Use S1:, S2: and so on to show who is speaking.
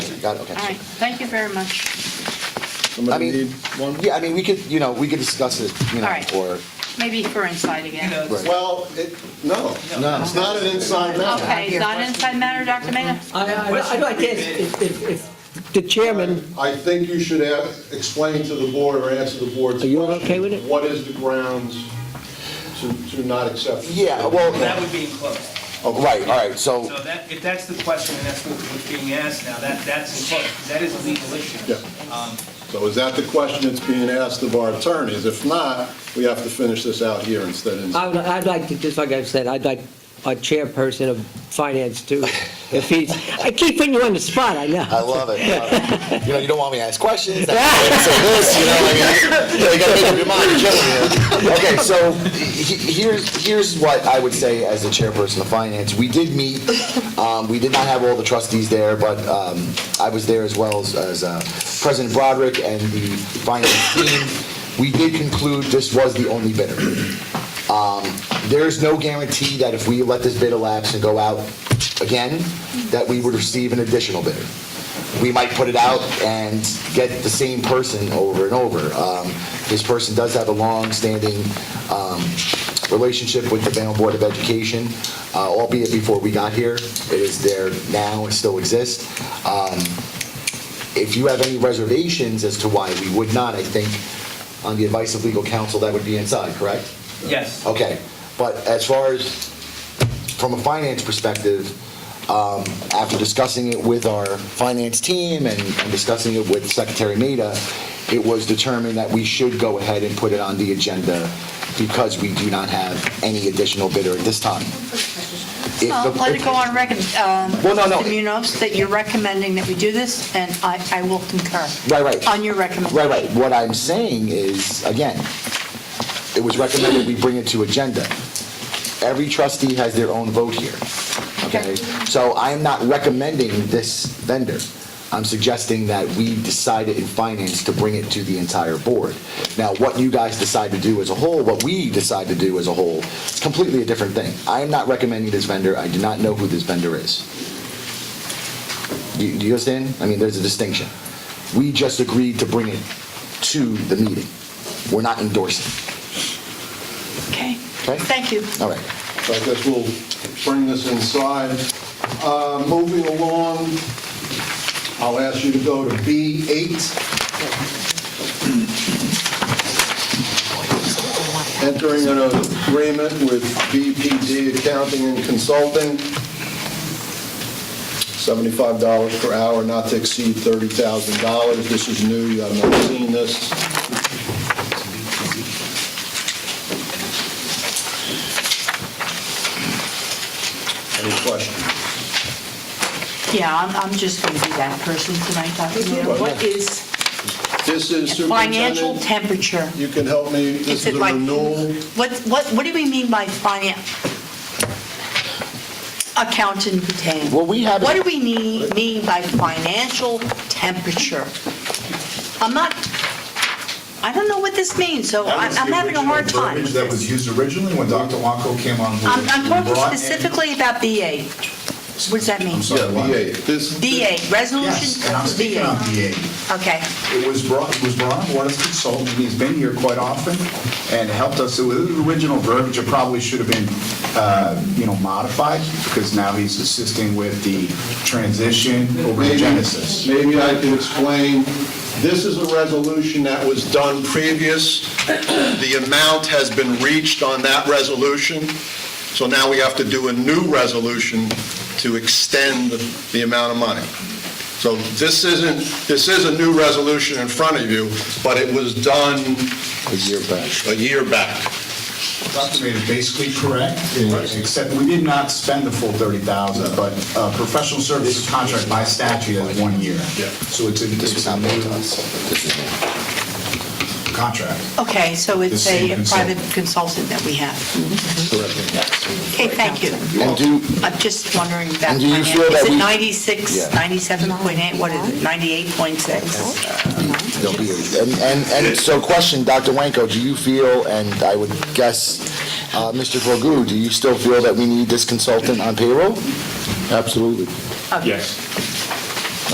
S1: got it, okay.
S2: All right, thank you very much.
S1: I
S3: Somebody
S1: mean,
S3: need one?
S1: yeah, I mean, we could, you know, we could discuss it, you
S2: All
S1: know,
S2: right.
S1: or,
S2: Maybe for inside again.
S1: Right.
S4: Well, it, no,
S1: no.
S4: it's not an inside matter.
S2: Okay, it's not inside matter, Dr. Maida?
S5: I, I, I'd like to ask if, if, if the chairman,
S4: I think you should have, explain to the board or answer the board's
S5: Are
S4: question.
S5: you all okay with it?
S4: What is the grounds to, to not accept?
S1: yeah, well, oh,
S6: That would be in close.
S1: right, all right, so,
S6: So that, if that's the question, and that's what- what's being asked now, that, that's in close, because that is a legal issue.
S4: Yeah. So is that the question that's being asked of our attorneys? If not, we have to finish this out here instead of.
S5: I would, I'd like to, just like I've said, I'd like our chairperson of finance too, if he's, I keep putting you on the spot, I know.
S1: I love it. I love it. You know, you don't want me to ask questions. That's why I say this, you know, like, you know, you gotta make up your mind, you're killing me. Okay, so he- he- here's, here's what I would say as the chairperson of finance. We did meet, um, we did not have all the trustees there, but, um, I was there as well as, as, uh, President Broderick and the finance team. We did conclude this was the only bidder. Um, There's no guarantee that if we let this bid elapse and go out again, that we would receive an additional bidder we might put it out and get the same person over and over. Um, This person does have a long-standing um, relationship with the Bayonne Board of Education, uh, albeit before we got here. It is there now and still exists. Um, If you have any reservations as to why we would not, I think, on the advice of legal counsel, that would be inside, correct?
S6: Yes.
S1: Okay, but as far as, from a finance perspective, um, after discussing it with our finance team and and discussing it with Secretary Maida, it was determined that we should go ahead and put it on the agenda because we do not have any additional bidder at this time. If
S2: Well,
S1: the-
S2: Uh, Let it go on record, um,
S1: Well, no, no.
S2: Mr. Munoz, that you're recommending that we do this, and I I will concur.
S1: Right, right.
S2: On your recommendation.
S1: Right, right. What I'm saying is, again, it was recommended we bring it to agenda. Every trustee has their own vote here, okay? So I am not recommending this vendor. I'm suggesting that we decided in finance to bring it to the entire board. Now, what you guys decide to do as a whole, what we decide to do as a whole, it's completely a different thing. I am not recommending this vendor. I do not know who this vendor is. Do you do you understand? I mean, there's a distinction. We just agreed to bring it to the meeting. We're not endorsing,
S2: Okay,
S1: okay?
S2: thank you.
S1: All right.
S4: So I guess we'll bring this inside. Uh, Moving along, I'll ask you to go to B8. Entering an agreement with BPD Accounting and Consulting, $75 per hour, not to exceed $30,000. This is new, you have not seen this. Any questions?
S2: Yeah, I'm I'm just going to be that person tonight, Dr. Munoz. What is
S4: This is
S2: financial
S4: superintendent.
S2: temperature?
S4: You can help me,
S2: Is
S4: this
S2: it
S4: is a
S2: like,
S4: renewal.
S2: what, what, what do we mean by finance? Accountant retained.
S1: Well, we have-
S2: What do we need, mean by financial temperature? I'm not, I don't know what this means, so
S7: That
S2: I-
S7: was
S2: I'm
S7: the
S2: having a hard
S7: original
S2: time.
S7: verbiage
S2: with
S7: That
S2: this.
S7: was used originally when Dr. Wanko came on board.
S2: I'm, I'm
S7: We
S2: talking
S7: brought in-
S2: specifically about BA. What does that mean?
S7: I'm sorry,
S4: Yeah,
S7: what?
S4: VA. This,
S2: BA,
S7: Yes, and I'm
S2: resolution
S7: speaking on
S2: BA.
S7: VA.
S2: Okay.
S7: It was brought, he was brought on board as a consultant, he's been here quite often and helped us. It was the original verbiage, it probably should have been, uh, you know, modified because now he's assisting with the transition over to
S4: maybe,
S7: Genesis.
S4: maybe I can explain. This is a resolution that was done previous. The amount has been reached on that resolution, so now we have to do a new resolution to extend the amount of money. So this isn't, this is a new resolution in front of you, but it was done
S1: A year back.
S4: a year back.
S7: Dr. Maid is basically correct, eh, except we did not spend the full 30,000, but uh, professional services contract by statute is one year. So it's a,
S1: This
S7: it's a
S1: not
S7: new
S1: made to us. This is new.
S7: contract.
S2: Okay, so it's
S7: The same
S2: a private
S7: consultant.
S2: consultant that we have. Okay, thank you.
S1: And do,
S2: I'm just wondering about
S1: And do you
S2: finance.
S1: feel that
S2: Is it
S1: we-
S2: 96,
S1: Yeah.
S2: 97.8, what is it, 98.6?
S1: there'll be a- and, and, and so question, Dr. Wanko, do you feel, and I would guess, uh, Mr. Vergu, do you still feel that we need this consultant on payroll? Absolutely.
S2: Okay.
S8: Yes.